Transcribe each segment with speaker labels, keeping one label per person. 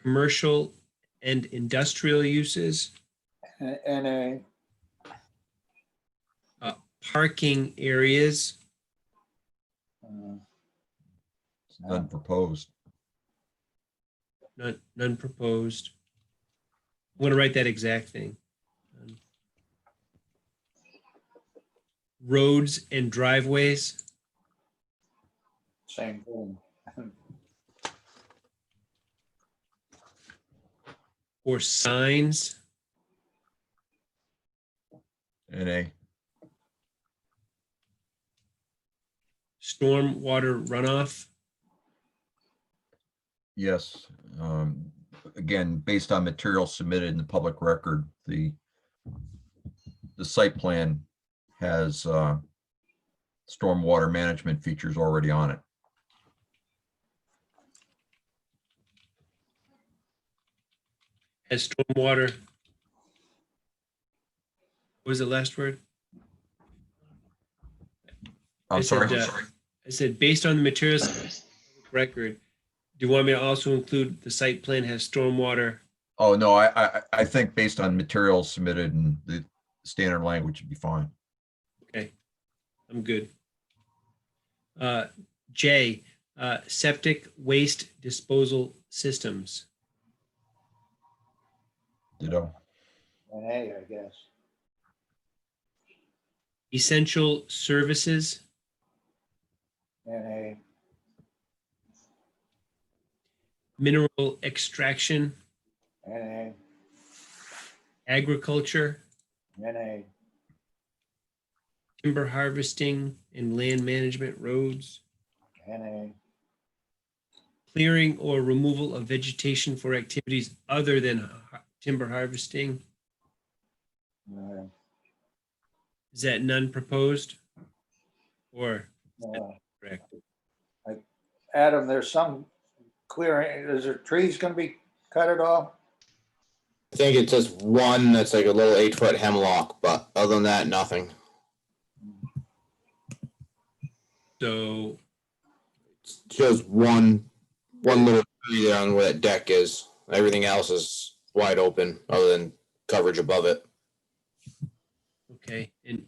Speaker 1: commercial and industrial uses,
Speaker 2: N- NA,
Speaker 1: parking areas,
Speaker 2: uh,
Speaker 3: It's None proposed.
Speaker 1: none, none proposed. I want to write that exact thing. Um, Roads and driveways,
Speaker 2: same thing.
Speaker 1: or signs,
Speaker 3: NA,
Speaker 1: stormwater runoff,
Speaker 3: yes. Um, Again, based on material submitted in the public record, the the site plan has uh, stormwater management features already on it.
Speaker 1: as stormwater. What was the last word? I
Speaker 3: I'm sorry,
Speaker 1: said,
Speaker 3: I'm
Speaker 1: uh,
Speaker 3: sorry.
Speaker 1: I said, based on the materials of the record, do you want me to also include the site plan has stormwater?
Speaker 3: Oh, no, I, I, I- I think based on materials submitted and the standard language would be fine.
Speaker 1: I'm good. Uh, J, uh, septic waste disposal systems.
Speaker 3: Ditto.
Speaker 2: NA, I guess.
Speaker 1: Essential services,
Speaker 2: NA,
Speaker 1: mineral extraction,
Speaker 2: NA,
Speaker 1: agriculture,
Speaker 2: NA,
Speaker 1: timber harvesting and land management roads,
Speaker 2: NA,
Speaker 1: clearing or removal of vegetation for activities other than har- timber harvesting.
Speaker 2: no,
Speaker 1: Is that none proposed? Or
Speaker 2: no.
Speaker 1: Correct.
Speaker 2: Like, uh, Adam, there's some clearing, is there trees gonna be cut at all?
Speaker 4: I think it's just one that's like a little eight foot hemlock, but other than that, nothing.
Speaker 1: so
Speaker 4: It's Just one, one little tree there on where that deck is. Everything else is wide open, other than coverage above it.
Speaker 1: Okay, and,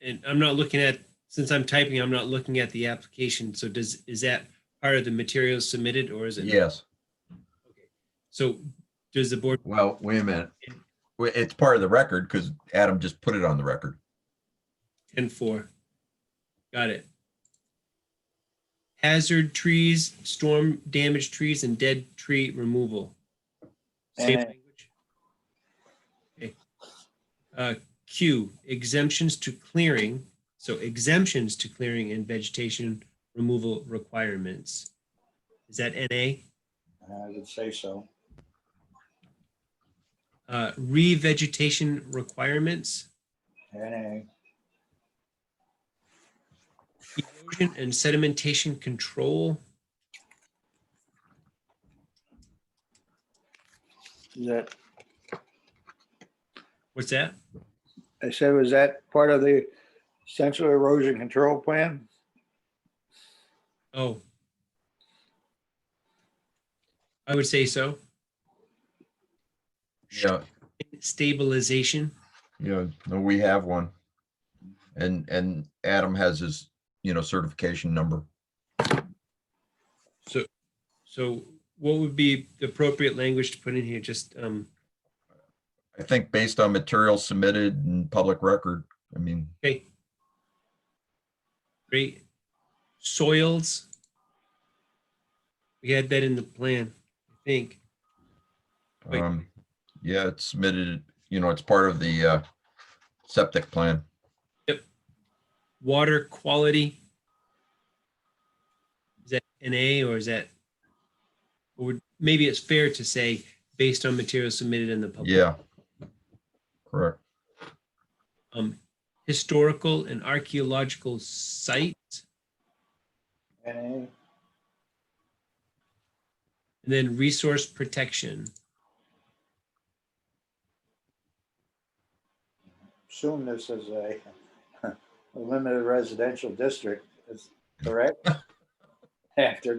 Speaker 1: and I'm not looking at, since I'm typing, I'm not looking at the application, so does, is that part of the materials submitted or is it? not?
Speaker 3: Yes.
Speaker 1: So does the board,
Speaker 3: Well, wait a minute. Wait, It's part of the record because Adam just put it on the record.
Speaker 1: ten four, got it. Hazard trees, storm damaged trees and dead tree removal. Same
Speaker 2: And-
Speaker 1: language? Okay. Uh, Q, exemptions to clearing, so exemptions to clearing and vegetation removal requirements. Is that NA?
Speaker 2: I would say so.
Speaker 1: Uh, revegetation requirements,
Speaker 2: NA,
Speaker 1: erosion and sedimentation control,
Speaker 2: is that,
Speaker 1: what's that?
Speaker 2: I said, was that part of the central erosion control plan?
Speaker 1: Oh. I would say so.
Speaker 3: Yeah,
Speaker 1: Stabilization,
Speaker 3: yeah, no, we have one. And, and Adam has his, you know, certification number.
Speaker 1: so what would be the appropriate language to put in here? Just, um,
Speaker 3: I think based on materials submitted and public record, I mean,
Speaker 1: okay. Great. Soils. We had that in the plan, I think. Wait.
Speaker 3: um, yeah, it's submitted, you know, it's part of the uh, septic plan.
Speaker 1: Water quality. Is that NA or is that? Or would- maybe it's fair to say based on materials submitted in the public.
Speaker 3: Yeah. Correct.
Speaker 1: um, historical and archaeological sites,
Speaker 2: NA,
Speaker 1: and then resource protection.
Speaker 2: assume this is a a limited residential district, is correct? After